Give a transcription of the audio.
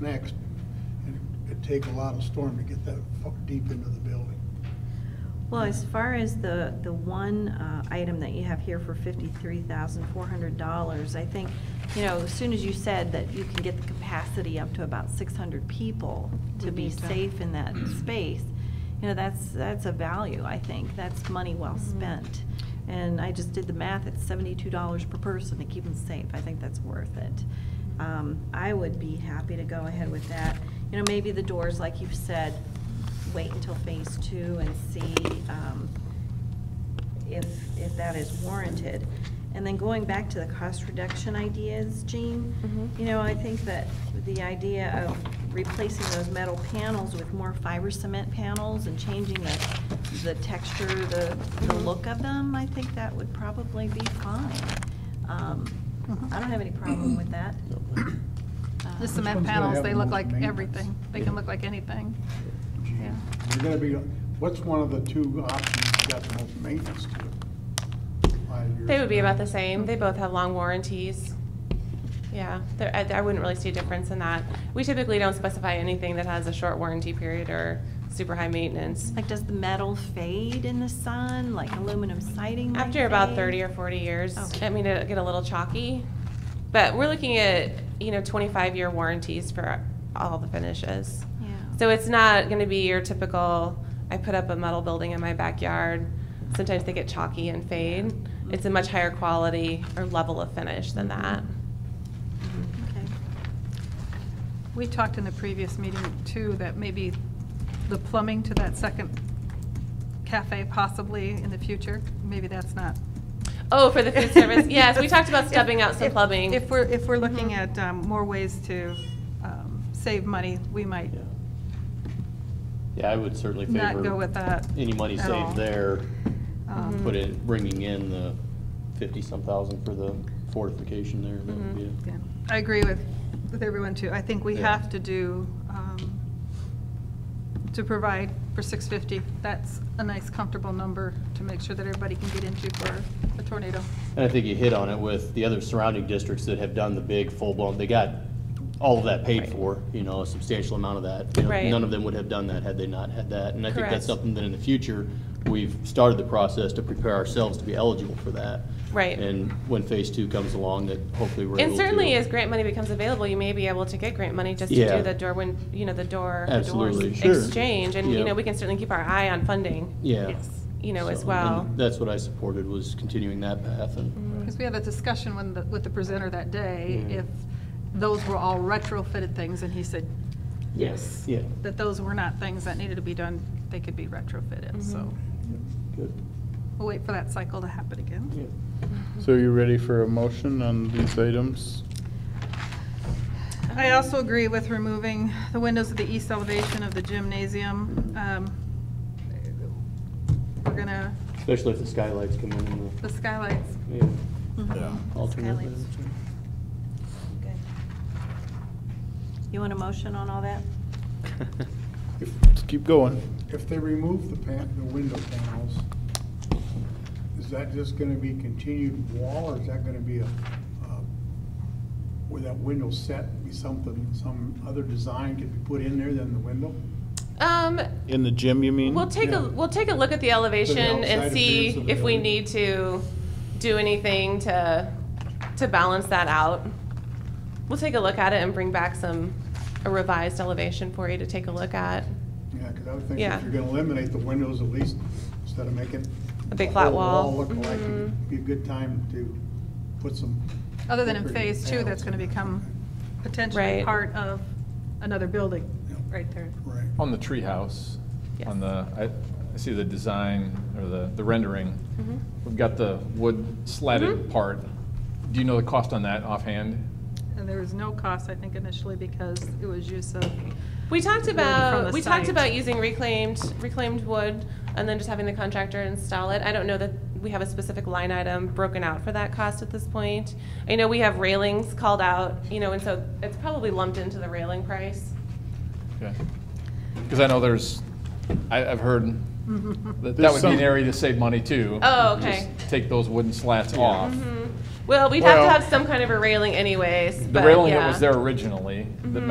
next, and it'd take a lot of storm to get that fu- deep into the building. Well, as far as the, the one uh, item that you have here for fifty-three thousand four hundred dollars, I think, you know, as soon as you said that you can get the capacity up to about six hundred people to We be need to- safe in that space, you know, that's, that's a value, I think. That's money well Mhm. spent. And I just did the math, it's seventy-two dollars per person to keep them safe. I think that's worth it. Um, I would be happy to go ahead with that. You know, maybe the doors, like you've said, wait until phase two and see, um, if, if that is warranted. And then going back to the cost reduction ideas, Jean, Mhm. Mm-hmm. you know, I think that the idea of replacing those metal panels with more fiber cement panels and changing the, the texture, the, the Mhm. look of them, I think that would probably be fine. Um, I don't have any problem with that. Uh, The Which one's cement gonna panels, have they the look most like maintenance? everything. They can look like anything. Gee, Yeah. You're gonna be, what's one of the two options you got the most maintenance to? Five years They would be from now. about the same. They both have long warranties. Yeah, there- I, I wouldn't really see a difference in that. We typically don't specify anything that has a short warranty period or super high maintenance. Like, does the metal fade in the sun, like aluminum siding might After about fade? thirty or forty years, Okay. I mean, it'll get a little chalky. But we're looking at, you know, twenty-five year warranties for all the finishes. Yeah. So it's not gonna be your typical, I put up a metal building in my backyard. Sometimes they get chalky and fade. Mm-hmm. It's a much higher quality or level of finish than that. Okay. We talked in the previous meeting too, that maybe the plumbing to that second cafe possibly in the future, maybe that's not. Oh, for the food service, yes, we talked about If- stubbing out some if- plumbing. Mm-hmm. If we're, if we're looking at um, more ways to um, save money, we might Yeah. Yeah, I would certainly not go with favor that. any money at all. saved there, Um, put in, bringing in the fifty-some thousand for the fortification there. That would be Yeah, I agree with, with everyone too. I think we Yeah. have to do, um, to provide for six fifty. That's a nice comfortable number to make sure that everybody can get into for a tornado. And I think you hit on it with the other surrounding districts that have done the big full-blown, they got all of that paid Right. for, you know, a substantial amount of that. You know, Right. None of them would have done that had they not had that. And I think Correct. that's something that in the future, we've started the process to prepare ourselves to be eligible for that. Right. And when phase two comes along, that hopefully we're able And to. certainly, as grant money becomes available, you may be able to get grant money just to Yeah. do the door, when, you know, the door, the doors Absolutely, sure. exchange. And, you Yeah. know, we can certainly keep our eye on funding. Yeah. Yes. You know, as So, and well. That's what I supported, was continuing that path and. Because we had a discussion when, the- with the presenter that day, Yeah. if those were all retrofitted things, and he said, yes. Mm-hmm. Yeah, That those were not things that needed to be done, they could be retrofitted, so good, we'll wait for that cycle to happen again. yeah. So are you ready for a motion on these items? I also agree with removing the windows of the east elevation of the gymnasium. Um, We're gonna, Especially if the skylights come in and the skylights, Mm-hmm. the, yeah, Mhm. alternate. Skylights. lights. Good. You want a motion on all that? Just keep going. If they remove the pan, the window panels, is that just gonna be continued wall, or is that gonna be a, uh, where that window set be something, some other design could be put in there than the window? Um, In the gym, you mean? we'll take Yeah. a, we'll take a look at the elevation outside and see appearance of the if we building. need to do anything to, to balance that out. We'll take a look at it and bring back some, a revised elevation for you to take a look at. Yeah, because I would think Yeah. if you're gonna eliminate the windows, at least, instead of making. A big the flat whole wall. Look like, it'd be a good time to put some. Mm-hmm. other than in decorative phase two, that's gonna panels. become potentially Right. part of another building, right there. Right. On the treehouse, Yes. on the, I, I see the design or the, the rendering. Mm-hmm. We've got the wood slatted Mhm. part. Do you know the cost on that offhand? And there was no cost, I think, initially because it was use of, We talked wood from about, the we talked site. about using reclaimed, reclaimed wood and then just having the contractor install it. I don't know that we have a specific line item broken out for that cost at this point. I know we have railings called out, you know, and so it's probably lumped into the railing price. Because I know there's, I, I've heard that that There's would be an some- area to save money too. Mm-hmm. Oh, Just okay. Mm-hmm. Take those wooden slats off. Well, we'd have to Well- have some kind of a railing anyways, The but railing that yeah. Mm-hmm. was there originally, that